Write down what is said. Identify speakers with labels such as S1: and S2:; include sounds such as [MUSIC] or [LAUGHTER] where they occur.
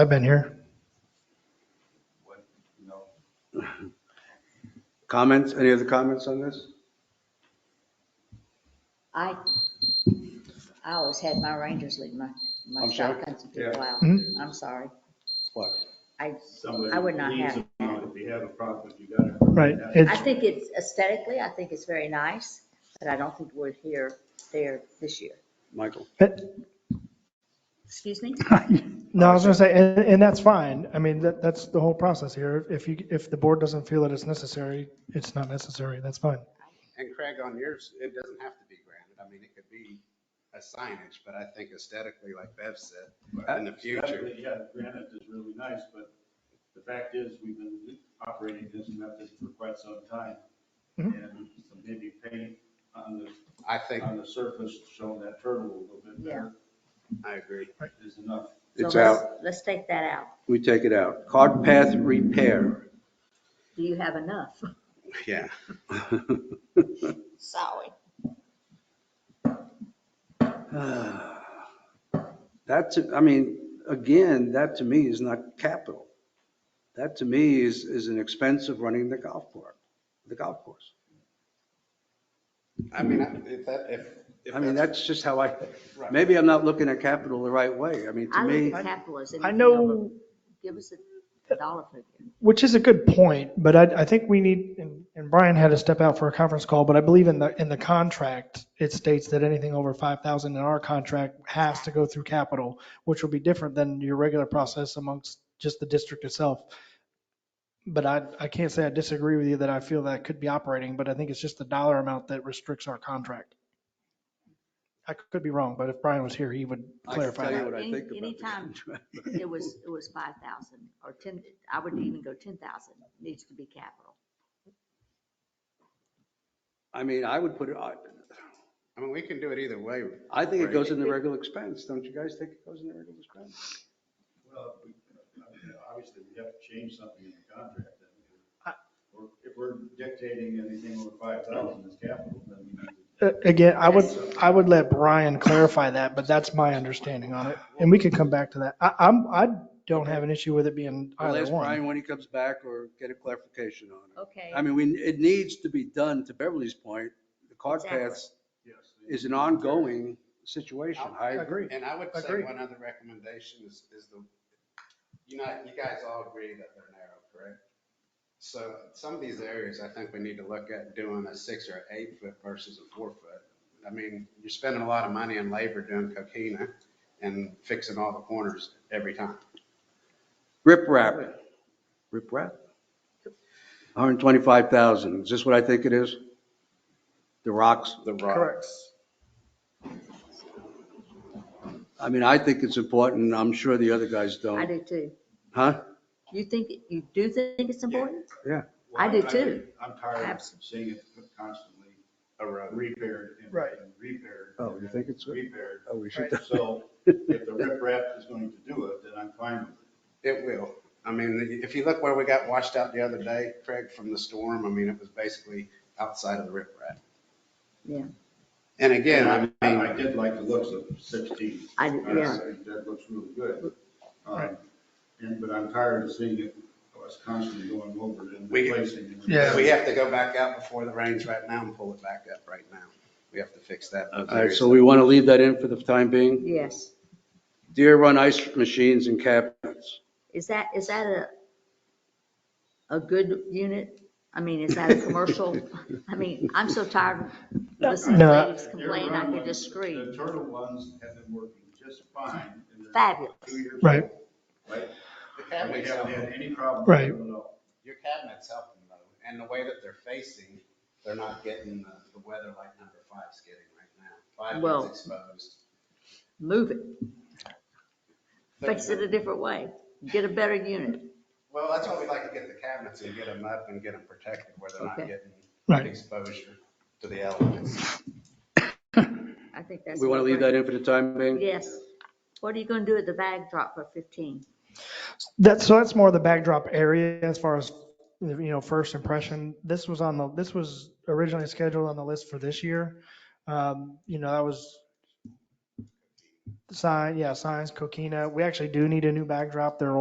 S1: I've been here.
S2: Comments, any other comments on this?
S3: I, I always had my Rangers lead my, my
S2: I'm sorry?
S3: shotguns and people
S2: Yeah.
S3: out.
S1: Mhm.
S3: I'm sorry.
S2: What?
S3: I,
S4: Somebody
S3: I would not
S4: leaves
S3: have
S4: them on. If you have a problem, you gotta.
S1: Right.
S3: I
S1: It's,
S3: think it's aesthetically, I think it's very nice, but I don't think we're here, there this year.
S2: Michael?
S1: it-
S3: Excuse me?
S1: no, I was going to say, and, and that's fine. I mean, that, that's the whole process here. If you, if the board doesn't feel that it's necessary, it's not necessary. That's fine.
S5: And Craig, on yours, it doesn't have to be granted. I mean, it could be a signage, but I think aesthetically, like Bev said, in the future.
S4: Yeah, granite is really nice, but the fact is, we've been operating this method for quite some time. And some maybe paint on the,
S5: I think,
S4: on the surface, showing that turtle a little
S1: [LAUGHS]
S4: bit better
S5: I agree.
S4: is enough.
S3: So
S2: It's
S3: let's-
S2: out.
S3: Let's take that out.
S2: We take it out. Cart path repair.
S3: Do you have enough?
S5: Yeah.
S3: Sorry.
S2: That, to- I mean, again, that to me is not capital. That to me is, is an expense of running the golf park, the golf course.
S5: I mean, I- if that, if. if
S2: I mean, that's just how I,
S5: Right.
S2: maybe I'm not looking at capital the right way. I mean, to
S3: [LAUGHS] I
S2: me,
S3: look at capital as
S1: I
S3: anything over.
S1: know,
S3: Give us a dollar figure.
S1: which is a good point, but I, I think we need, and and Brian had to step out for a conference call, but I believe in the, in the contract, it states that anything over 5,000 in our contract has to go through capital, which will be different than your regular process amongst just the district itself. But I, I can't say I disagree with you that I feel that could be operating, but I think it's just the dollar amount that restricts our contract. I could be wrong, but if Brian was here, he would
S2: I can
S1: clarify
S2: tell you
S1: that.
S2: what I
S3: Any-
S2: think about the [LAUGHS]
S3: anytime.
S2: contract.
S3: It was, it was 5,000 or 10, I wouldn't even go 10,000. Needs to be capital.
S2: I mean, I would put it, I,
S5: I mean, we can do it either way.
S2: I think it
S5: Right.
S2: goes in the regular expense. Don't you guys think it goes in the regular expense?
S4: Well, we- I mean, obviously, we have to change something in the contract. then. Or If we're dictating anything over 5,000 as capital, then we need to
S1: Uh, Again, I would, I would let Brian clarify that, but that's my understanding on it. And we could come back to that. I, I'm, I don't have an issue with it being
S2: I'll
S1: either
S2: ask Brian
S1: one.
S2: when he comes back or get a clarification on it.
S3: Okay.
S2: I mean, we, it needs to be done, to Beverly's point, the cart
S3: Exactly.
S2: paths
S4: Yes.
S2: is an ongoing situation. I
S1: agree.
S5: And I would say
S1: Agree.
S5: one other recommendation is, is the, you know, you guys all agree that they're narrow, correct? So some of these areas, I think we need to look at doing a six or eight foot versus a four foot. I mean, you're spending a lot of money and labor doing coquina and fixing all the corners every time.
S2: Rip wrap. Rip wrap? 125,000. Is this what I think it is? The rocks?
S5: The rocks.
S2: I mean, I think it's important. I'm sure the other guys
S3: I
S2: don't.
S3: do too.
S2: Huh?
S3: You think, you do think it's important?
S2: Yeah.
S3: I do too.
S4: I'm tired of
S3: Abs-
S4: seeing it constantly uh,
S5: Erode.
S4: repaired and
S1: Right.
S4: and repaired.
S2: Oh, you think it's-
S4: Repaired.
S2: Oh, we should.
S1: [LAUGHS]
S4: So if the riprap is going to do it, then I'm fine with it.
S5: It will. I mean, if you look where we got washed out the other day, Craig, from the storm, I mean, it was basically outside of the riprap.
S3: Yeah.
S5: And again, I mean.
S4: I I did like the looks of 16.
S3: I did, yeah.
S4: That looks really good. Um, And, but I'm tired of seeing it, I was constantly going over it and
S5: We-
S4: replacing. it.
S1: Yeah.
S5: We have to go back out before the rains right now and pull it back up right now. We have to fix that.
S2: All right, so we want to leave that in for the time being?
S3: Yes.
S2: Deer run ice machines and cabinets.
S3: Is that, is that a, a good unit? I mean, is that a commercial?
S2: [LAUGHS]
S3: I mean, I'm so tired of listening to
S1: No.
S3: ladies complain, I can just
S4: The
S3: scream.
S4: turtle ones have been working just fine. and they're
S3: Fabulous.
S4: two years old,
S1: Right.
S4: Right?
S5: The
S4: We
S5: cabinets help.
S4: haven't had any problem with
S1: Right.
S4: them at all.
S5: Your cabinets help them though, and the way that they're facing, they're not getting the, the weather like number five's getting right now. Five
S3: Well-
S5: is exposed.
S3: Move it.
S5: They're-
S3: Fix it a different way. Get a better unit.
S5: Well, that's why we like to get the cabinets and get them up and get them protected where they're not
S3: Okay.
S1: Right.
S5: getting exposure to the elements.
S3: I think that's.
S2: We want to leave that in for the time being?
S3: Yes. What are you gonna do at the bag drop for 15?
S1: That's, so that's more the backdrop area as far as, you know, first impression. This was on the, this was originally scheduled on the list for this year. Um, You know, that was sign, yeah, signs, coquina. We actually do need a new backdrop. They're